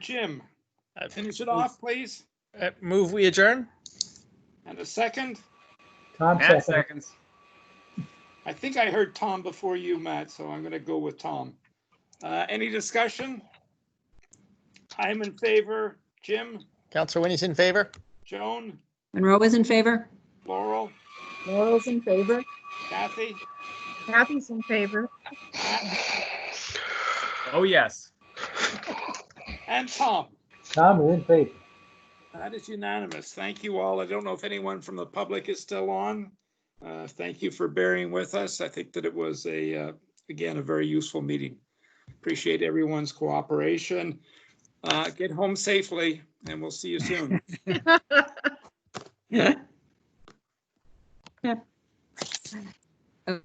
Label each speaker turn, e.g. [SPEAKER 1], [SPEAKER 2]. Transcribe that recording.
[SPEAKER 1] Jim,
[SPEAKER 2] I-
[SPEAKER 1] finish it off, please.
[SPEAKER 2] I Move, we adjourn?
[SPEAKER 1] And a second.
[SPEAKER 3] Tom
[SPEAKER 4] Matt
[SPEAKER 3] second.
[SPEAKER 4] seconds.
[SPEAKER 1] I think I heard Tom before you, Matt, so I'm going to go with Tom. Uh, Any discussion? I'm in favor. Jim,
[SPEAKER 2] Counselor Winnie's in favor?
[SPEAKER 1] Joan,
[SPEAKER 5] Monroe is in favor?
[SPEAKER 1] Laurel,
[SPEAKER 6] Laurel's in favor.
[SPEAKER 1] Kathy,
[SPEAKER 6] Kathy's in favor.
[SPEAKER 4] Oh, yes.
[SPEAKER 1] and Tom.
[SPEAKER 3] Tom is in favor.
[SPEAKER 1] That is unanimous. Thank you all. I don't know if anyone from the public is still on. Uh, Thank you for bearing with us. I think that it was a, uh, again, a very useful meeting. Appreciate everyone's cooperation. Uh, Get home safely, and we'll see you soon.
[SPEAKER 6] Yep.